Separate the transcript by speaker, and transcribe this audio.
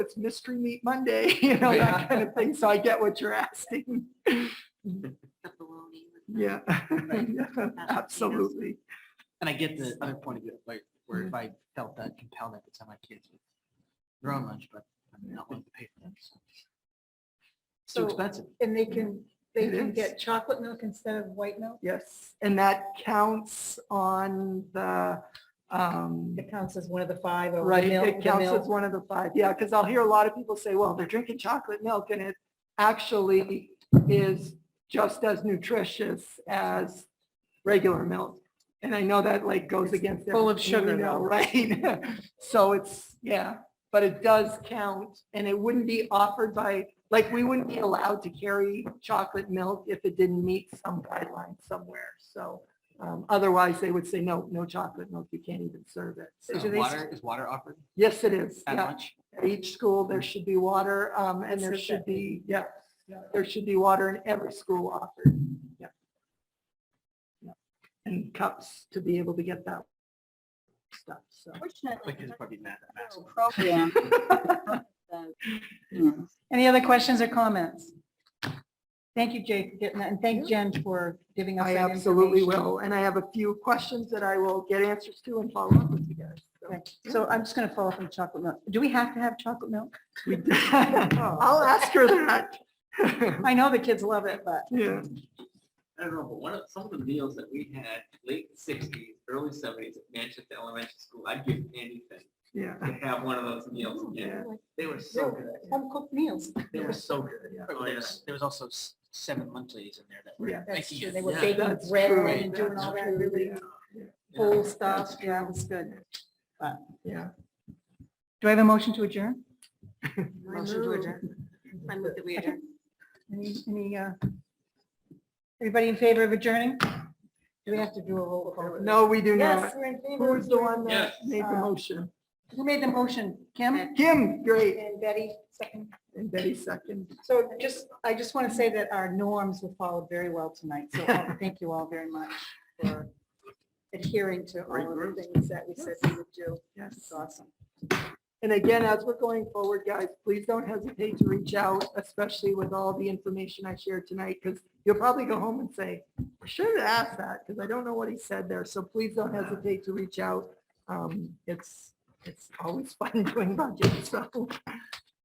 Speaker 1: it's mystery meat Monday, you know, that kind of thing. So I get what you're asking.
Speaker 2: the baloney. with the-
Speaker 1: Yeah, Yeah, absolutely.
Speaker 3: And I get the other point of view, like, where if I felt that compelled, I could send my kids with their own lunch, but I'm not willing to pay for that. so It's too
Speaker 4: So-
Speaker 3: expensive.
Speaker 4: And they can, they
Speaker 1: It
Speaker 4: can
Speaker 1: is.
Speaker 4: get chocolate milk instead of white milk?
Speaker 1: Yes, and that counts on the, um,
Speaker 4: It counts as one of the five or
Speaker 1: right,
Speaker 4: one milk,
Speaker 1: it
Speaker 4: the
Speaker 1: counts as
Speaker 4: milk.
Speaker 1: one of the five. Yeah, because I'll hear a lot of people say, well, they're drinking chocolate milk and it actually is just as nutritious as regular milk. And I know that like goes against.
Speaker 4: full of
Speaker 1: everything we
Speaker 4: sugar,
Speaker 1: know,
Speaker 4: though.
Speaker 1: Right? So it's, yeah, but it does count and it wouldn't be offered by, like, we wouldn't be allowed to carry chocolate milk if it didn't meet some guideline somewhere. So um, otherwise they would say, no, no chocolate milk, you can't even serve it. So
Speaker 3: Is
Speaker 1: do they-
Speaker 3: Water, is water offered
Speaker 1: Yes, it is.
Speaker 3: at
Speaker 1: Yeah.
Speaker 3: lunch?
Speaker 1: At each school, there should be water, um, and there
Speaker 4: That's
Speaker 1: should
Speaker 4: okay.
Speaker 1: be, yeah, there should be water in every school offered, yeah. Yeah. And cups to be able to get that stuff, so.
Speaker 3: My
Speaker 2: Fortunately,
Speaker 3: kids
Speaker 2: there's
Speaker 3: probably mad
Speaker 5: Oh,
Speaker 3: at
Speaker 2: no
Speaker 3: Max.
Speaker 2: program. that, you know,
Speaker 4: Any other questions or comments? Thank you, Jake, for getting that, and thank Jen for giving us
Speaker 1: I
Speaker 4: that
Speaker 1: absolutely
Speaker 4: information.
Speaker 1: will, and I have a few questions that I will get answers to and follow up with you guys. so.
Speaker 4: Right. So I'm just going to follow up on chocolate milk. Do we have to have chocolate milk?
Speaker 1: We- I'll ask her that.
Speaker 4: I know the kids love it, but
Speaker 1: Yeah,
Speaker 5: I don't know, but one of, some of the meals that we had late sixties, early seventies at Manchester Elementary School, I'd give anything
Speaker 1: yeah.
Speaker 5: to have one of those meals again. They were so good.
Speaker 4: home cooked meals.
Speaker 5: They were so good.
Speaker 3: But
Speaker 5: Oh, yeah.
Speaker 3: There's, there was also s- seven munchies in there that
Speaker 1: Yeah.
Speaker 3: were.
Speaker 4: That's
Speaker 3: Thank
Speaker 4: true.
Speaker 3: you.
Speaker 4: They were
Speaker 5: Yeah,
Speaker 4: baking
Speaker 1: that's
Speaker 4: bread
Speaker 1: true.
Speaker 4: and doing
Speaker 1: That's
Speaker 4: all that
Speaker 1: true,
Speaker 4: really
Speaker 1: yeah.
Speaker 4: full
Speaker 5: Yeah.
Speaker 4: stuff. Yeah, it was good.
Speaker 1: Yeah.
Speaker 4: Do I have a motion to adjourn?
Speaker 2: I move- I move that we adjourn.
Speaker 4: Any, any, uh, everybody in favor of adjourning? Do we have to do a roll call?
Speaker 1: No, we do
Speaker 4: Yes,
Speaker 1: not.
Speaker 4: we're in favor.
Speaker 1: Who was the one that
Speaker 5: Yes.
Speaker 1: made the
Speaker 4: Uh,
Speaker 1: motion?
Speaker 4: Who made the motion? Kim
Speaker 1: Kim, great.
Speaker 4: and Betty, second.
Speaker 1: And Betty second.
Speaker 4: So just, I just want to say that our norms were followed very well tonight, so I thank you all very much for adhering to all of the things that we said we would do. It's
Speaker 1: Yes.
Speaker 4: awesome.
Speaker 1: And again, as we're going forward, guys, please don't hesitate to reach out, especially with all the information I shared tonight, because you'll probably go home and say, I should have asked that, because I don't know what he said there. So please don't hesitate to reach out. Um, It's, it's always fun doing budget, so